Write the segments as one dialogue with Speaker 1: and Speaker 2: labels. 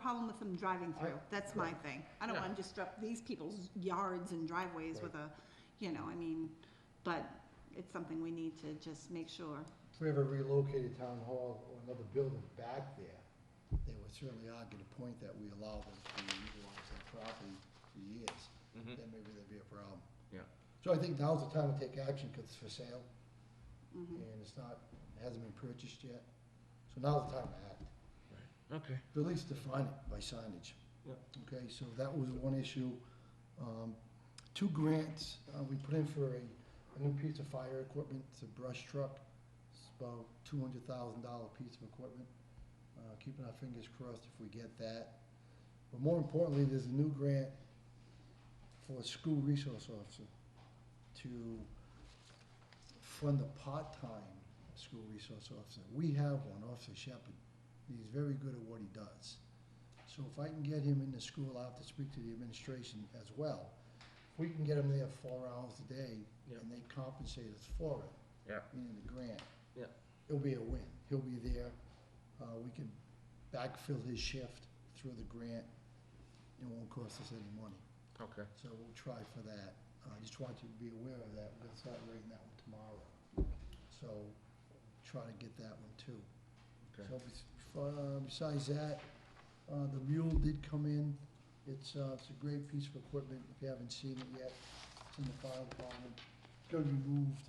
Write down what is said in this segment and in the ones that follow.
Speaker 1: problem with them driving through, that's my thing. I don't
Speaker 2: Yeah.
Speaker 1: wanna disrupt these people's yards and driveways with a, you know, I mean, but it's something we need to just make sure.
Speaker 3: If we ever relocated town hall or another building back there, they would certainly argue the point that we allow them to utilize that property for years,
Speaker 2: Mhm.
Speaker 3: then maybe there'd be a problem.
Speaker 2: Yeah.
Speaker 3: So I think now's the time to take action, cause it's for sale,
Speaker 1: Mhm.
Speaker 3: and it's not, it hasn't been purchased yet, so now's the time to act.
Speaker 2: Okay.
Speaker 3: But At least define it by signage.
Speaker 2: Yep.
Speaker 3: Okay, so that was one issue. Um, Two grants, uh, we put in for a, a new piece of fire equipment, it's a brush truck. It's about two hundred thousand dollar piece of equipment. Uh, keeping our fingers crossed if we get that. But more importantly, there's a new grant for a school resource officer to fund a part-time school resource officer. We have one, Officer Shepherd. He's very good at what he does. So if I can get him into school, I'll have to speak to the administration as well. If we can get him there four hours a day
Speaker 2: Yep.
Speaker 3: and they compensate us for it.
Speaker 2: Yeah.
Speaker 3: Meaning the grant.
Speaker 2: Yeah.
Speaker 3: It'll be a win. He'll be there. Uh, we can backfill his shift through the grant. It won't cost us any money.
Speaker 2: Okay.
Speaker 3: So we'll try for that. Uh, I just want you to be aware of that. We're gonna start writing that one tomorrow. So try to get that one too.
Speaker 2: Okay.
Speaker 3: So bes- uh, besides that, uh, the mule did come in. It's, uh, it's a great piece of equipment. If you haven't seen it yet, it's in the fire department. It's gonna be moved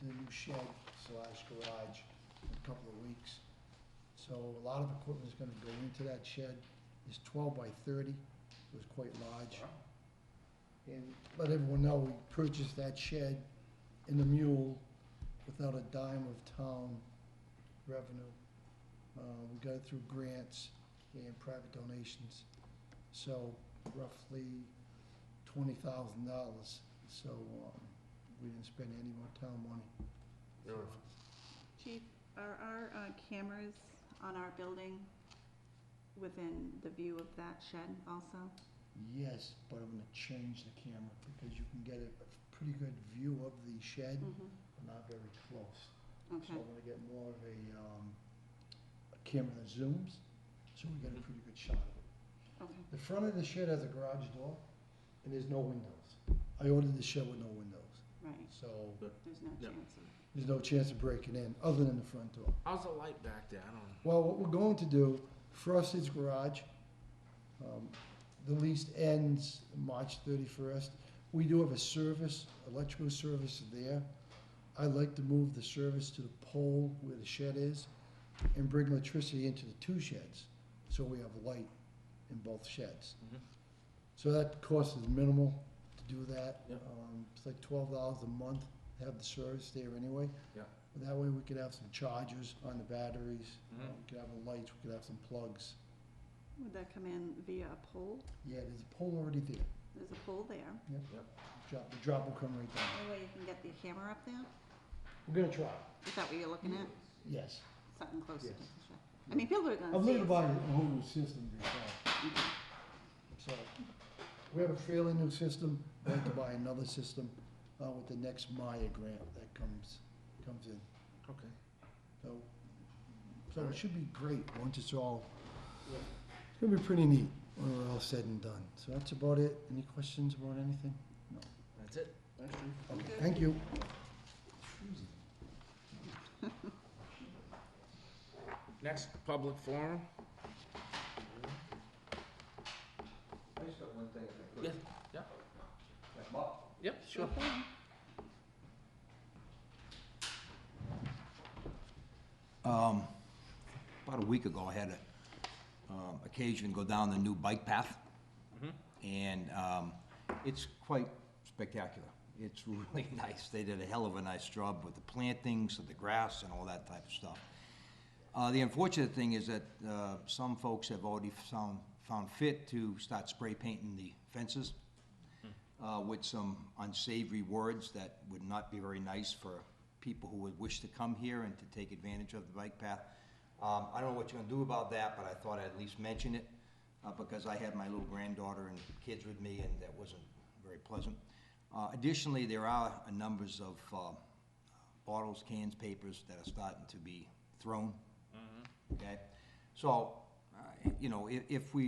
Speaker 3: to the new shed slash garage in a couple of weeks. So a lot of equipment is gonna go into that shed. It's twelve by thirty. It was quite large. And let everyone know, we purchased that shed and the mule without a dime of town revenue. Uh, we got it through grants and private donations, so roughly twenty thousand dollars. So, um, we didn't spend any more town money.
Speaker 2: Beautiful.
Speaker 1: Chief, are our uh, cameras on our building within the view of that shed also?
Speaker 3: Yes, but I'm gonna change the camera because you can get a pretty good view of the shed,
Speaker 1: Mhm.
Speaker 3: but not very close. So
Speaker 1: Okay,
Speaker 3: I'm gonna get more of a, um, a camera that zooms, so we get a pretty good shot of it.
Speaker 1: okay,
Speaker 3: The front of the shed has a garage door, and there's no windows. I ordered the shed with no windows,
Speaker 1: right,
Speaker 3: so
Speaker 1: there's no
Speaker 2: Yeah.
Speaker 1: chance of,
Speaker 3: there's no chance of breaking in, other than the front door.
Speaker 2: How's the light back there? I don't know.
Speaker 3: Well, what we're going to do, Frosted's Garage, um, the lease ends March thirty-first. We do have a service, electrical service there. I'd like to move the service to the pole where the shed is and bring electricity into the two sheds, so we have light in both sheds.
Speaker 2: Mhm.
Speaker 3: So that cost is minimal to do that.
Speaker 2: Yeah.
Speaker 3: Um, It's like twelve dollars a month, to have the service there anyway.
Speaker 2: Yeah.
Speaker 3: That way we could have some chargers on the batteries, uh,
Speaker 2: Mhm.
Speaker 3: we could have the lights, we could have some plugs.
Speaker 1: would that come in via a pole?
Speaker 3: Yeah, there's a pole already there.
Speaker 1: There's a pole there.
Speaker 3: Drop, the drop will come right down.
Speaker 1: Any way you can get the camera up there?
Speaker 3: We're gonna try,
Speaker 1: Is that what you're looking
Speaker 2: Mm-hmm.
Speaker 1: at?
Speaker 3: yes.
Speaker 1: Something closer to
Speaker 3: Yes.
Speaker 1: the shed? I mean, people are gonna see it.
Speaker 3: I've learned about
Speaker 1: so-
Speaker 3: a whole new system before. So, we have a fairly new system, we have to buy another system, uh, with the next Maya grant that comes, comes in.
Speaker 2: Okay.
Speaker 3: So, so it should be great once it's all, it's gonna be pretty neat when we're all said and done. So that's about it. Any questions about anything?
Speaker 2: That's it. Thanks, Chief.
Speaker 3: Okay, thank you.
Speaker 2: Next public forum.
Speaker 4: I just got one thing if I could.
Speaker 2: Yeah, yeah.
Speaker 4: Like, Mark,
Speaker 2: Yep, sure.
Speaker 4: Um, about a week ago, I had a, um, occasion to go down the new bike path.
Speaker 2: Mm-hmm.
Speaker 4: And, um, it's quite spectacular. It's really nice. They did a hell of a nice job with the plantings and the grass and all that type of stuff. Uh, the unfortunate thing is that, uh, some folks have already found, found fit to start spray painting the fences uh, with some unsavory words that would not be very nice for people who would wish to come here and to take advantage of the bike path. Um, I don't know what you're gonna do about that, but I thought I'd at least mention it, uh, because I had my little granddaughter and kids with me, and that wasn't very pleasant. Uh, additionally, there are a numbers of, uh, bottles, cans, papers that are starting to be thrown. Okay, so, uh, you know, if, if we